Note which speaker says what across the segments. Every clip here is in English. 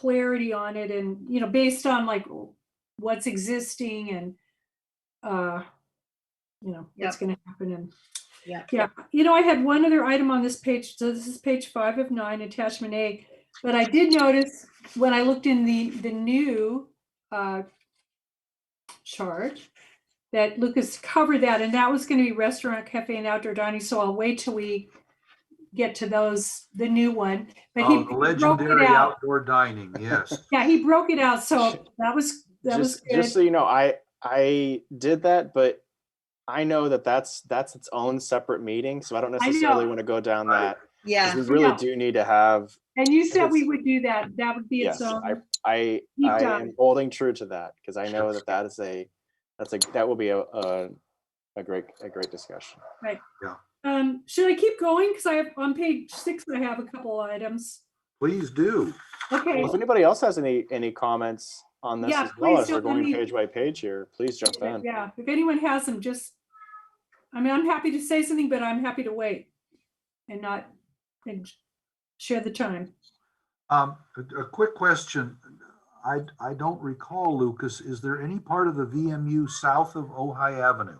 Speaker 1: clarity on it and, you know, based on like what's existing and, uh, you know, what's going to happen and.
Speaker 2: Yeah.
Speaker 1: Yeah, you know, I had one other item on this page, so this is page five of nine, attachment A. But I did notice when I looked in the, the new, uh, chart that Lucas covered that and that was going to be restaurant, cafe and outdoor dining. So I'll wait till we get to those, the new one. But he
Speaker 3: Oh, the
Speaker 1: broke it
Speaker 3: legendary
Speaker 1: out.
Speaker 3: outdoor dining, yes.
Speaker 1: Yeah, he broke it out, so that was, that was
Speaker 4: just just
Speaker 1: good.
Speaker 4: so you know i i did that but i know that that's that's its own separate meeting so i don't
Speaker 1: I
Speaker 4: necessarily
Speaker 1: know.
Speaker 4: want to go down
Speaker 3: Right.
Speaker 4: that 'cause
Speaker 2: Yeah,
Speaker 4: we really
Speaker 1: know.
Speaker 4: do need to have
Speaker 1: And you said we would do that. That would be its
Speaker 4: yes i
Speaker 1: own.
Speaker 4: i,
Speaker 1: Deep
Speaker 4: I
Speaker 1: dive.
Speaker 4: am holding true to that because i know that that is a that's a that will be a, a a great a great discussion
Speaker 1: Um, should I keep going? Because I have, on page six, I have a couple items.
Speaker 3: Please do.
Speaker 1: Okay,
Speaker 4: if anybody else has any any comments on this
Speaker 1: Yeah,
Speaker 4: as well
Speaker 1: please
Speaker 4: as we're
Speaker 1: don't let
Speaker 4: going
Speaker 1: me-
Speaker 4: page by page here please jump in
Speaker 1: yeah, if anyone has them, just, I mean, I'm happy to say something, but I'm happy to wait and not, and share the time.
Speaker 3: Um, a, a quick question. I, I don't recall, Lucas, is there any part of the VMU south of Ojai Avenue?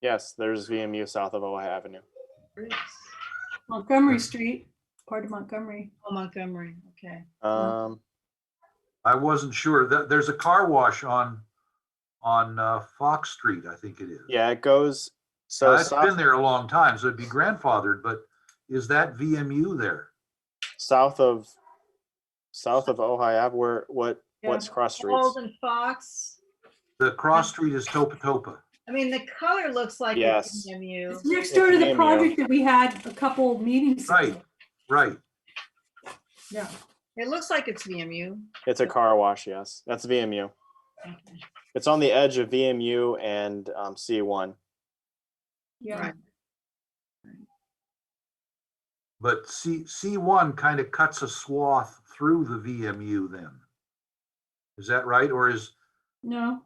Speaker 4: yes there's vmu south of ohio avenue
Speaker 1: Montgomery Street, part of Montgomery.
Speaker 2: Oh, Montgomery, okay.
Speaker 4: um
Speaker 3: I wasn't sure. There, there's a car wash on, on, uh, Fox Street, I think it is.
Speaker 4: yeah it goes so
Speaker 3: Now, It's
Speaker 4: south-
Speaker 3: been there a long time, so it'd be grandfathered, but is that VMU there?
Speaker 4: south of south of Ohio Ave, where what
Speaker 1: Yeah.
Speaker 4: what's cross streets?
Speaker 2: Old and Fox.
Speaker 3: The cross street is Topa Topa.
Speaker 2: I mean, the color looks like
Speaker 4: Yes.
Speaker 2: it's
Speaker 1: It's
Speaker 2: MU.
Speaker 1: next door to the
Speaker 4: Cameo.
Speaker 1: project that we had a couple meetings. ago.
Speaker 3: Right, right.
Speaker 1: Yeah,
Speaker 2: It looks like it's VMU.
Speaker 4: It's a car wash. Yes, that's VMU.
Speaker 2: Okay.
Speaker 4: It's on the edge of VMU and um, C1.
Speaker 1: yeah.
Speaker 2: Right.
Speaker 3: But C, C1 kind of cuts a swath through the VMU then. Is that right? Or is,
Speaker 1: No,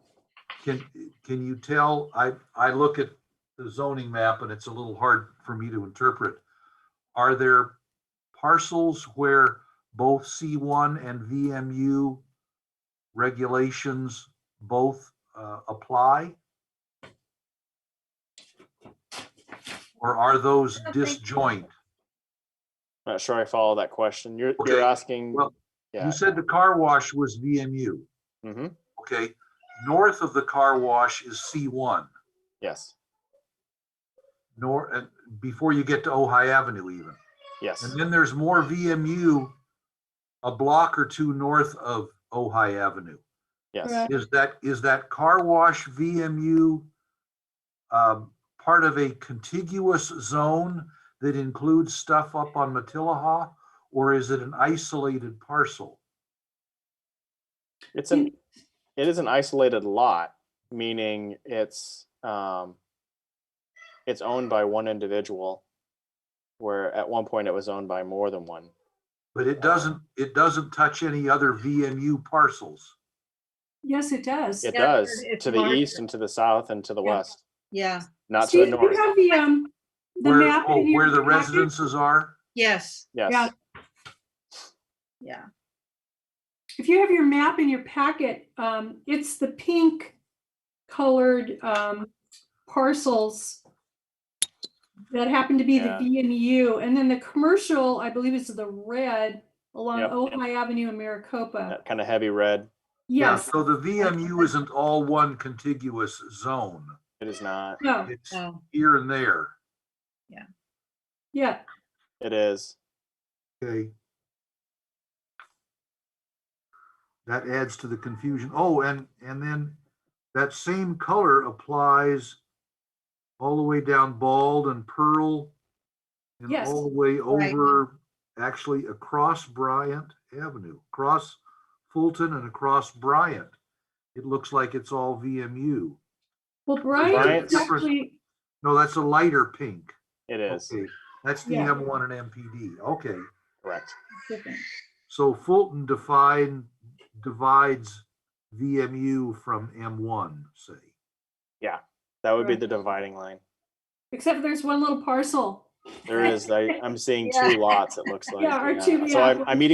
Speaker 3: can, can you tell, I, I look at the zoning map and it's a little hard for me to interpret. Are there parcels where both C1 and VMU regulations both uh, apply? Or are those
Speaker 2: I don't think so.
Speaker 3: disjoint?
Speaker 4: Not sure I follow that question. You're
Speaker 3: Okay,
Speaker 4: you're asking.
Speaker 3: well,
Speaker 4: yeah.
Speaker 3: You said the car wash was VMU.
Speaker 4: hmm
Speaker 3: Okay, north of the car wash is C1,
Speaker 4: Yes.
Speaker 3: nor, uh, before you get to Ojai Avenue even.
Speaker 4: Yes.
Speaker 3: And then there's more VMU a block or two north of Ojai Avenue.
Speaker 4: Yes.
Speaker 1: Right.
Speaker 3: Is that, is that car wash VMU um, part of a contiguous zone that includes stuff up on Matilaha? Or is it an isolated parcel?
Speaker 4: It's an it is an isolated lot, meaning it's um, it's owned by one individual, where at one point it was owned by more than one.
Speaker 3: But it doesn't, it doesn't touch any other VMU parcels.
Speaker 1: yes, it does.
Speaker 4: It
Speaker 2: Yeah,
Speaker 4: does
Speaker 2: it's
Speaker 4: to the east
Speaker 2: larger.
Speaker 4: and to the south and to the
Speaker 1: Yeah.
Speaker 4: west.
Speaker 2: Yeah,
Speaker 4: Not
Speaker 1: Steve,
Speaker 4: to
Speaker 1: do
Speaker 4: the
Speaker 1: you
Speaker 4: north.
Speaker 1: have the, um, the
Speaker 3: Where,
Speaker 1: map
Speaker 3: oh,
Speaker 1: in your
Speaker 3: where the
Speaker 1: packet?
Speaker 3: residences are?
Speaker 2: yes,
Speaker 4: Yes.
Speaker 1: Yeah.
Speaker 2: yeah.
Speaker 1: If you have your map in your packet, um, it's the pink colored, um, parcels that happen to be the
Speaker 4: Yeah.
Speaker 1: VMU, and then the commercial, I believe is the red along
Speaker 4: Yep.
Speaker 1: Ojai Avenue in Maricopa.
Speaker 4: That kind of heavy red.
Speaker 3: Yeah,
Speaker 1: Yes,
Speaker 3: So the VMU isn't all one contiguous zone.
Speaker 4: It is not.
Speaker 1: no,
Speaker 3: It's
Speaker 2: No,
Speaker 3: here and there.
Speaker 1: yeah,
Speaker 4: It is.
Speaker 3: Okay. That adds to the confusion. Oh, and, and then that same color applies all the way down Bald and Pearl and
Speaker 1: Yes.
Speaker 3: all the way
Speaker 2: Right.
Speaker 3: over, actually across Bryant Avenue, across Fulton and across Bryant. It looks like it's all VMU.
Speaker 1: well, Brian,
Speaker 4: Bryant's-
Speaker 1: actually,
Speaker 3: No, that's a lighter pink.
Speaker 4: It is.
Speaker 3: Okay, That's the
Speaker 1: Yeah.
Speaker 3: M1 and MPD. Okay,
Speaker 4: Correct.
Speaker 1: different.
Speaker 3: so Fulton define, divides VMU from M1, say.
Speaker 4: That would be
Speaker 1: Correct.
Speaker 4: the dividing line.
Speaker 1: except there's one little parcel There is, I, I'm seeing two lots, it looks like.
Speaker 4: Yeah, our two-
Speaker 1: So
Speaker 4: yeah.
Speaker 1: I'm, I'm eating